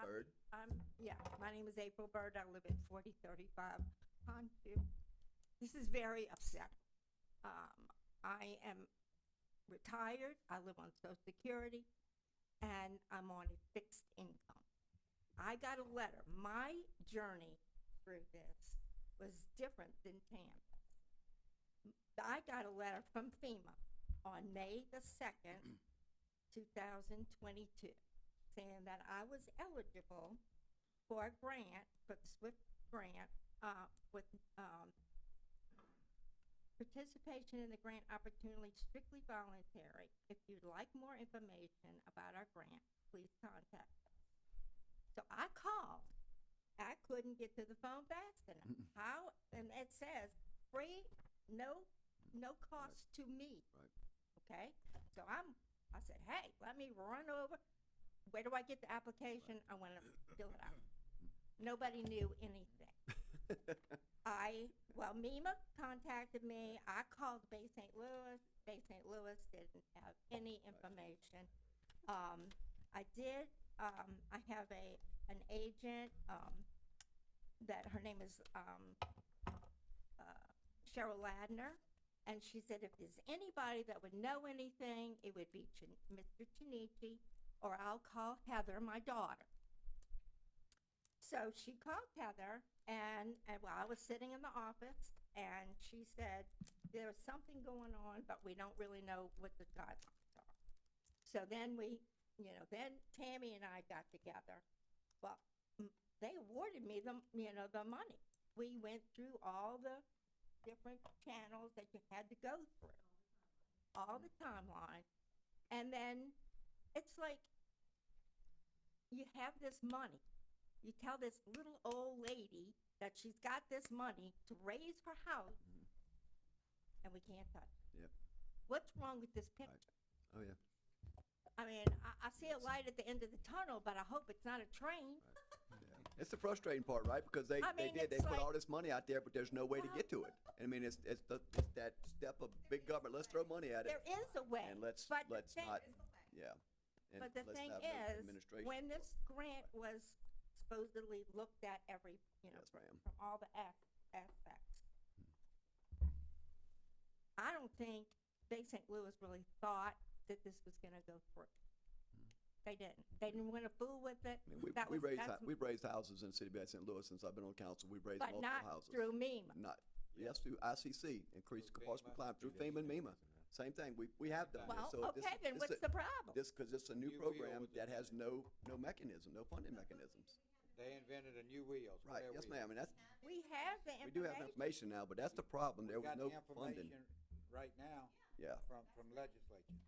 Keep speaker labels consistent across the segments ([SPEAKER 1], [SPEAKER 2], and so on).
[SPEAKER 1] Bird.
[SPEAKER 2] I'm, yeah, my name is April Bird. I live at forty thirty-five Pondview. This is very upsetting. Um, I am retired. I live on social security and I'm on a fixed income. I got a letter. My journey through this was different than Pam's. I got a letter from FEMA on May the second, two thousand twenty-two saying that I was eligible for a grant, for the SWIFT grant, uh, with, um, participation in the grant opportunity strictly voluntary. If you'd like more information about our grant, please contact us. So I called. I couldn't get to the phone fast enough. How, and it says free, no, no cost to me.
[SPEAKER 1] Right.
[SPEAKER 2] Okay, so I'm, I said, hey, let me run over where do I get the application? I want to fill it out. Nobody knew anything. I, well, MEMA contacted me, I called Bay St. Louis, Bay St. Louis didn't have any information. Um, I did, um, I have a, an agent, um, that, her name is, um, uh, Cheryl Ladner, and she said if there's anybody that would know anything, it would be Chin- Mr. Chinichi, or I'll call Heather, my daughter. So she called Heather, and, and well, I was sitting in the office, and she said, there's something going on, but we don't really know what the guidelines are. So then we, you know, then Tammy and I got together. Well, m- they awarded me the, you know, the money. We went through all the different channels that you had to go through, all the timeline. And then it's like you have this money. You tell this little old lady that she's got this money to raise her house,
[SPEAKER 1] Mhm.
[SPEAKER 2] and we can't touch it.
[SPEAKER 1] Mm-hmm. Yep.
[SPEAKER 2] What's wrong with this picture?
[SPEAKER 1] Oh, yeah.
[SPEAKER 2] I mean, I, I see a light at the end of the tunnel, but I hope it's not a train.
[SPEAKER 1] It's the frustrating part, right? Because they,
[SPEAKER 2] I
[SPEAKER 1] they
[SPEAKER 2] mean,
[SPEAKER 1] did, they
[SPEAKER 2] it's
[SPEAKER 1] put
[SPEAKER 2] like-
[SPEAKER 1] all this money out there, but there's no way to get to it. I mean, it's, it's, the- it's that step of big government, let's throw money at it
[SPEAKER 2] There is a way.
[SPEAKER 1] and let's,
[SPEAKER 2] but the
[SPEAKER 1] let's
[SPEAKER 2] thing-
[SPEAKER 1] not, yeah. And
[SPEAKER 2] But the
[SPEAKER 1] let's
[SPEAKER 2] thing
[SPEAKER 1] have no
[SPEAKER 2] is,
[SPEAKER 1] administration for
[SPEAKER 2] when
[SPEAKER 1] it.
[SPEAKER 2] this grant was supposedly looked at every, you know,
[SPEAKER 1] Yes, ma'am.
[SPEAKER 2] from all the as- aspects. I don't think Bay St. Louis really thought that this was gonna go through. They didn't. They didn't wanna fool with it,
[SPEAKER 1] I mean, we,
[SPEAKER 2] that
[SPEAKER 1] we
[SPEAKER 2] was-
[SPEAKER 1] raised,
[SPEAKER 2] that's
[SPEAKER 1] hou- we've raised houses in the city of Bay St. Louis since I've been on council. We've raised
[SPEAKER 2] but
[SPEAKER 1] multiple
[SPEAKER 2] not
[SPEAKER 1] houses.
[SPEAKER 2] through E MEMA.
[SPEAKER 1] Not, yes, through ICC, increased compulsory compliance, through FEMA and MEMA. Same thing. We, we have done this.
[SPEAKER 2] Well,
[SPEAKER 1] So this
[SPEAKER 2] okay,
[SPEAKER 1] is-
[SPEAKER 2] then
[SPEAKER 1] this
[SPEAKER 2] what's
[SPEAKER 1] is-
[SPEAKER 2] the problem?
[SPEAKER 1] This, because it's a new
[SPEAKER 3] New wheel
[SPEAKER 1] program
[SPEAKER 3] with the-
[SPEAKER 1] that has no, no mechanism, no funding mechanisms.
[SPEAKER 3] They invented a new wheel.
[SPEAKER 1] Right,
[SPEAKER 3] spare
[SPEAKER 1] yes
[SPEAKER 3] wheel.
[SPEAKER 1] ma'am, and that's,
[SPEAKER 2] We have the
[SPEAKER 1] we do have the information
[SPEAKER 2] information.
[SPEAKER 1] now, but that's the problem,
[SPEAKER 3] We
[SPEAKER 1] there was
[SPEAKER 3] got
[SPEAKER 1] no
[SPEAKER 3] the
[SPEAKER 1] funding.
[SPEAKER 3] information Right now.
[SPEAKER 1] Yeah.
[SPEAKER 3] From, from legislature.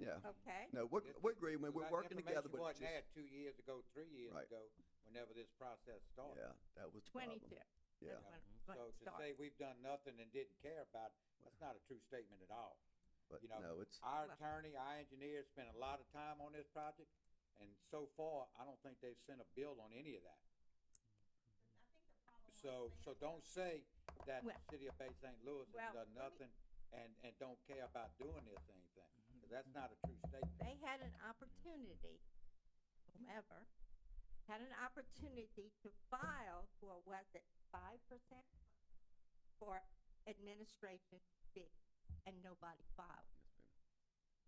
[SPEAKER 1] Yeah,
[SPEAKER 2] Okay,
[SPEAKER 1] no, we're,
[SPEAKER 3] It-
[SPEAKER 1] we're agreeing, when we're
[SPEAKER 3] That
[SPEAKER 1] working together,
[SPEAKER 3] information
[SPEAKER 1] but it's
[SPEAKER 3] Wasn't
[SPEAKER 1] just,
[SPEAKER 3] there two years ago, three years
[SPEAKER 1] Right.
[SPEAKER 3] ago, whenever this process started.
[SPEAKER 1] yeah, that was the problem.
[SPEAKER 2] twenty-two. is
[SPEAKER 1] Yeah,
[SPEAKER 2] when it
[SPEAKER 3] So to
[SPEAKER 2] started.
[SPEAKER 3] say we've done nothing and didn't care about, it, that's not a true statement at all.
[SPEAKER 1] but
[SPEAKER 3] you know,
[SPEAKER 1] no, it's,
[SPEAKER 3] Our
[SPEAKER 2] Well-
[SPEAKER 3] attorney, our engineer spent a lot of time on this project, and so far, I don't think they've sent a bill on any of that. So, so don't say that the
[SPEAKER 2] Well-
[SPEAKER 3] city of Bay St. Louis
[SPEAKER 2] Well,
[SPEAKER 3] has
[SPEAKER 2] let
[SPEAKER 3] done
[SPEAKER 2] me-
[SPEAKER 3] nothing and, and don't care about doing this thing, thing, 'cause that's
[SPEAKER 2] Mm-hmm.
[SPEAKER 3] not a true statement.
[SPEAKER 2] they had an opportunity, whomever, had an opportunity to file for, was it five percent? For administration fee, and nobody filed.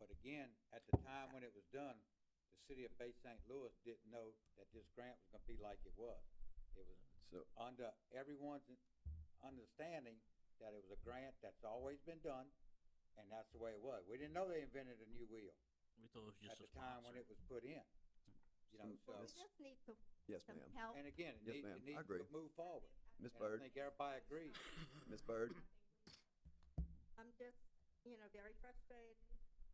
[SPEAKER 3] But again, at the time when it was done, the city of Bay St. Louis didn't know that this grant was gonna be like it was. It was
[SPEAKER 1] so,
[SPEAKER 3] under everyone's understanding that it was a grant that's always been done, and that's the way it was. We didn't know they invented a new wheel
[SPEAKER 4] We thought it was
[SPEAKER 3] at
[SPEAKER 4] just
[SPEAKER 3] the
[SPEAKER 4] a
[SPEAKER 3] time when
[SPEAKER 4] sponsor.
[SPEAKER 3] it was put in. You know, so,
[SPEAKER 2] Well, we
[SPEAKER 1] Miss-
[SPEAKER 2] just need to,
[SPEAKER 1] yes,
[SPEAKER 2] some
[SPEAKER 1] ma'am.
[SPEAKER 2] help.
[SPEAKER 3] and again, it
[SPEAKER 1] Yes,
[SPEAKER 3] needs,
[SPEAKER 1] ma'am. I
[SPEAKER 3] it needs
[SPEAKER 1] agree.
[SPEAKER 3] to move forward.
[SPEAKER 1] Ms.
[SPEAKER 3] And I
[SPEAKER 1] Bird,
[SPEAKER 3] think everybody agrees.
[SPEAKER 1] Ms. Bird,
[SPEAKER 2] I'm just, you know, very frustrated,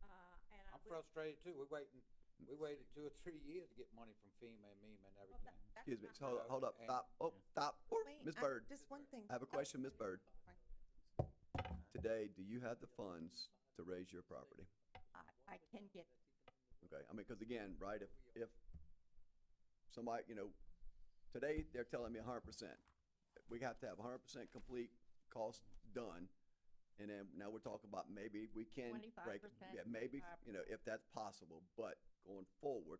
[SPEAKER 2] uh, and I
[SPEAKER 3] I'm
[SPEAKER 2] wish.
[SPEAKER 3] frustrated too. We're waiting, we waited two or three years to get money from FEMA and MEMA and
[SPEAKER 2] well, that-
[SPEAKER 3] everything.
[SPEAKER 2] that's
[SPEAKER 1] excuse me,
[SPEAKER 2] not
[SPEAKER 1] hold, up-
[SPEAKER 2] right.
[SPEAKER 1] hold up,
[SPEAKER 3] And-
[SPEAKER 1] stop, oh, stop, Oh,
[SPEAKER 5] Wait,
[SPEAKER 1] Ms.
[SPEAKER 5] I-
[SPEAKER 1] Bird,
[SPEAKER 5] Just one thing.
[SPEAKER 1] I have a question, Ms. Bird.
[SPEAKER 5] Fine.
[SPEAKER 1] Today, do you have the funds to raise your property?
[SPEAKER 2] I, I can get,
[SPEAKER 1] Okay, I mean, because again, right, if, if somebody, you know, today, they're telling me hundred percent. We have to have hundred percent complete cost done, and then now we're talking about maybe we can break.
[SPEAKER 2] 25%,
[SPEAKER 1] Yeah, maybe, you know, if that's possible, but going forward,